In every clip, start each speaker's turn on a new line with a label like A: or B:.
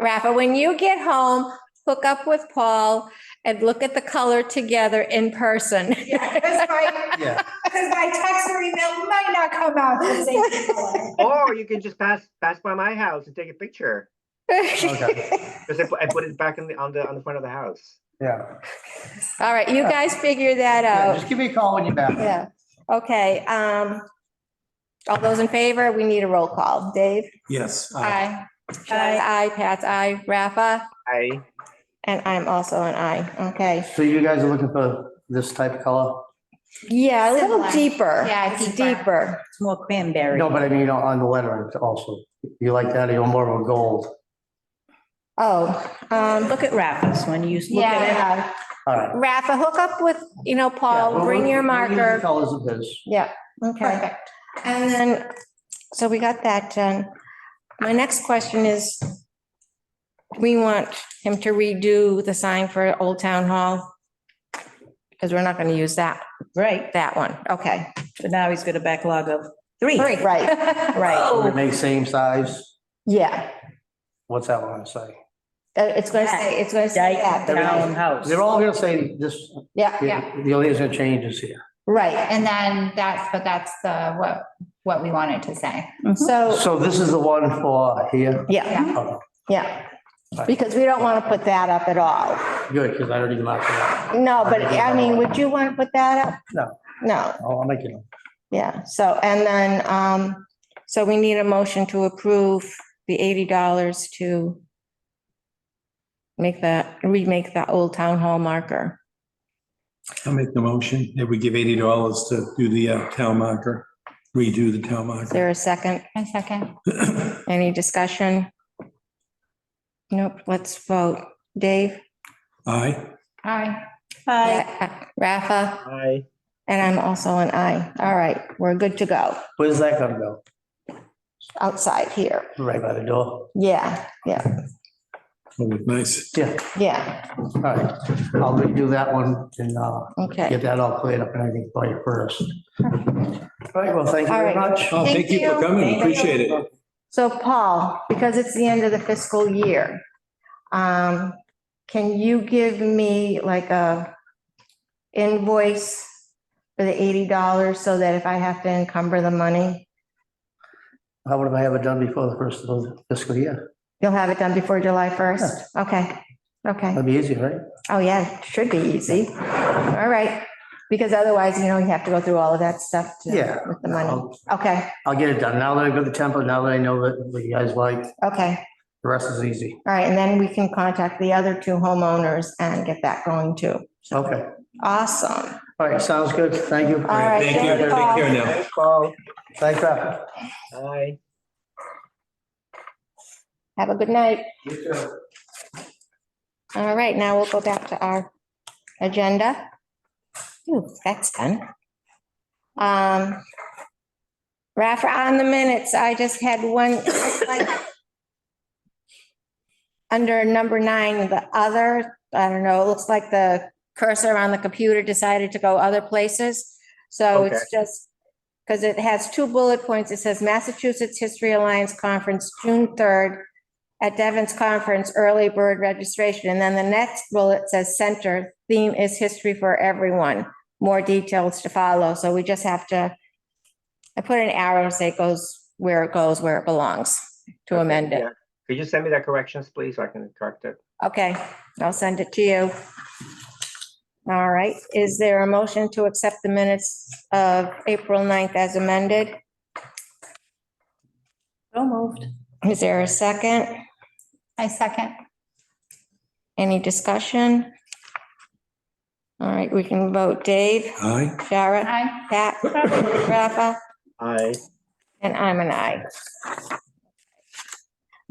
A: Rafa, when you get home, hook up with Paul and look at the color together in person.
B: Yeah, because my,
C: Yeah,
B: because my text or email might not come out the same color.
D: Or you can just pass, pass by my house and take a picture.
C: Okay.
D: Because I put, I put it back in the, on the, on the front of the house.
C: yeah.
A: All right, you guys figure that
C: Yeah,
A: out.
C: Just give me a call when you're back.
A: Yeah, okay. Um, all those in favor, we need a roll call. Dave?
E: Yes. uh, aye.
A: Aye. Aye, aye, Pat's aye, Rafa,
D: I,
A: and I'm also an aye, okay.
C: So you guys are looking for this type of color?
A: Yeah, a little
B: Similar.
A: deeper.
B: Yeah,
A: It's
B: deeper.
A: Deeper.
F: It's more cranberry.
C: No, but I mean, on the lettering also. You like that, or you're more of a gold?
A: Oh, um,
F: Look at Rafa's when you look at it.
A: yeah.
C: All right.
A: Rafa, hook up with, you know,
C: Yeah, well,
A: Paul, bring
C: we'll-
A: your
C: we'll use the
A: marker.
C: Colors of his.
A: Yeah, okay.
B: Perfect.
A: And then, so we got that done. My next question is, we want him to redo the sign for Old Town Hall? Because we're not going to use that,
F: Right,
A: that one. Okay.
F: but now he's got a backlog of three.
A: Right.
F: Right.
C: They make same size.
A: Yeah,
C: What's that want to say?
A: Uh, it's going to say, it's going to say
F: Dyke
A: that. right?
F: Townhouse.
C: They're all gonna say this,
A: Yeah,
C: the the only thing that's gonna change is here.
A: right.
B: And then that's, but that's the, what, what we wanted to say.
A: So,
C: So this is the one for here?
A: Mm-hmm. yeah,
B: Yeah.
C: Oh,
A: yeah. Because we don't want to put that up at all.
C: Good, because I don't even like that.
A: No, but I mean, would you want to put that up?
C: No.
A: No,
C: Oh, I'll I'll make it.
A: yeah, so, and then, um, so we need a motion to approve the eighty dollars to make that, remake that old town hall marker.
E: I'll make the motion that we give eighty dollars to do the uh, town marker, redo the town
A: Is
E: marker.
A: there a second?
B: A second.
A: Any discussion? Nope, let's vote. Dave?
E: Aye.
B: All right.
F: Hi.
A: Rafa?
D: I,
A: And I'm also an aye. All right, we're good to go
C: Where's that gonna go?
A: outside here.
C: Right by the door?
A: Yeah,
E: Oh, nice.
C: Yeah,
A: yeah,
C: all right. I'll redo that one and uh,
A: okay.
C: get that all cleared up and everything for you first. All right, well, thank you very
A: All right.
C: much.
E: Oh,
A: Thank
E: thank you
A: you.
E: for coming. Appreciate it.
A: So Paul, because it's the end of the fiscal year, um, can you give me like a invoice for the eighty dollars so that if I have to encumber the money,
C: How would I have it done before the first of the fiscal year?
A: you'll have it done before July first? Okay, okay.
C: That'd be easy, right?
A: Oh, yeah, it should be easy. All right, because otherwise, you know, you have to go through all of that stuff to,
C: Yeah.
A: with the money.
C: I'll-
A: Okay,
C: I'll get it done. Now that I go to Temple, now that I know that what you guys like,
A: okay.
C: the rest is easy.
A: All right, and then we can contact the other two homeowners and get that going too.
C: Okay,
A: Awesome.
C: all right, sounds good. Thank you.
A: All right,
E: Thank you.
A: thank you,
E: Take
A: Paul.
E: care now.
C: Thanks, Paul. Thanks, Rafa.
D: I.
A: Have a good night. All right, now we'll go back to our agenda. Ooh, that's done. Um, Rafa, on the minutes, I just had one. Under number nine, the other, I don't know, it looks like the cursor on the computer decided to go other places. So it's just, because it has two bullet points. It says Massachusetts History Alliance Conference, June third, at Devon's conference, early bird registration. And then the next bullet says center, theme is history for everyone. More details to follow. So we just have to, I put an arrow, say it goes where it goes, where it belongs to amend it.
D: yeah. Could you send me that corrections, please, so I can correct it?
A: Okay, I'll send it to you. All right, is there a motion to accept the minutes of April 9th as amended?
F: So moved.
A: Is there a second?
B: I second.
A: Any discussion? All right, we can vote Dave,
E: Aye.
A: Shara,
B: Aye.
A: Pat, Rafa,
D: I.
A: and I'm an aye.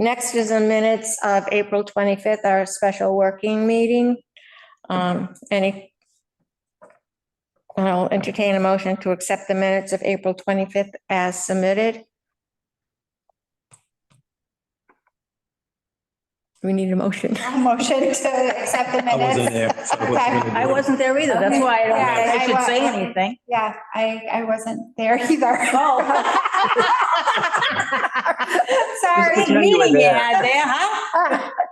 A: Next is the minutes of April 25th, our special working meeting. Um, Any? I'll entertain a motion to accept the minutes of April 25th as submitted. We need a motion.
B: Motion to accept the
E: I wasn't
B: minutes.
E: there. so I wasn't gonna
F: I
E: do it.
F: wasn't there either. That's why I don't
B: Okay. Yeah, I
F: think I should say
B: wa-
F: anything.
B: Yeah, I, I wasn't there either.
F: Oh.
D: Sorry.
B: pretend you were
D: meeting
B: there.
D: ad there, huh?